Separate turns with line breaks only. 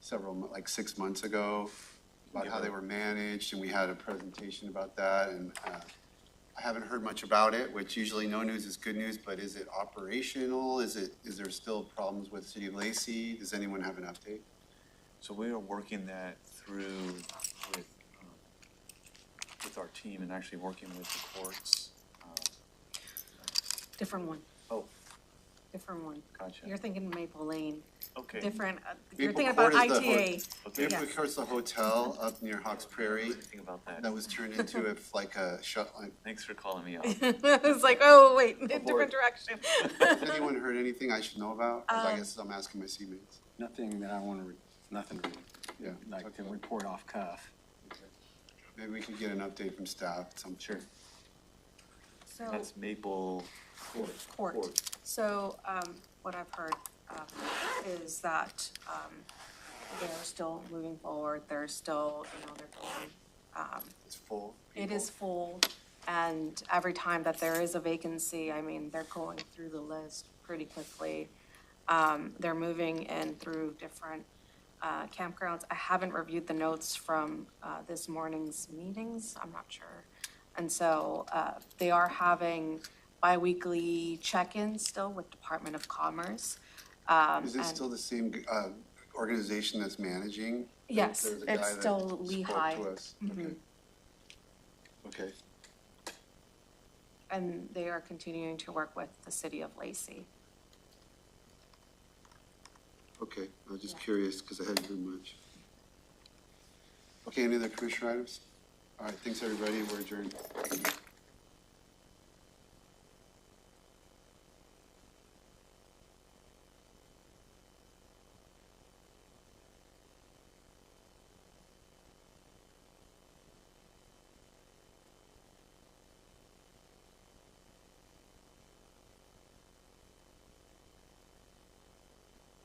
several, mo- like six months ago, about how they were managed, and we had a presentation about that, and uh, I haven't heard much about it, which usually no news is good news, but is it operational? Is it, is there still problems with City of Lacey? Does anyone have an update?
So we are working that through with, um, with our team and actually working with the courts. Um,
Different one,
Oh,
different one.
Gotcha.
You're thinking Maple Lane,
okay.
different, uh, you're
Maple
thinking about
Court is the hood.
ITA.
Okay.
We have, of course, the hotel up near Hawks Prairie
Think about
that
that.
was turned into a, like a shut, like,
Thanks for calling me out.
It's like, oh, wait, different
Abort.
direction.
has anyone heard anything I should know about? 'Cause I
Um,
guess I'm asking my teammates.
Nothing that I want to, nothing to,
Yeah,
like, to
okay.
report off cuff.
maybe we could get an update from staff, some.
Sure.
So,
That's Maple Court.
court, so, um, what I've heard, um, is that, um, they're still moving forward, they're still, you know, they're going
It's full.
It
people.
is full, and every time that there is a vacancy, I mean, they're going through the list pretty quickly. Um, they're moving in through different, uh, campgrounds. I haven't reviewed the notes from, uh, this morning's meetings, I'm not sure. And so, uh, they are having bi-weekly check-ins still with Department of Commerce.
Is this
Um, and-
still the same, uh, organization that's managing?
Yes,
There's a guy
it's
that
still
spoke
Lehigh. Mm-hmm.
to us. Okay. Okay,
And they are continuing to work with the city of Lacey.
okay, I was just
Yeah.
curious, because I hadn't heard much. Okay, any other commissioner items? All right, thanks, everybody, we're adjourned.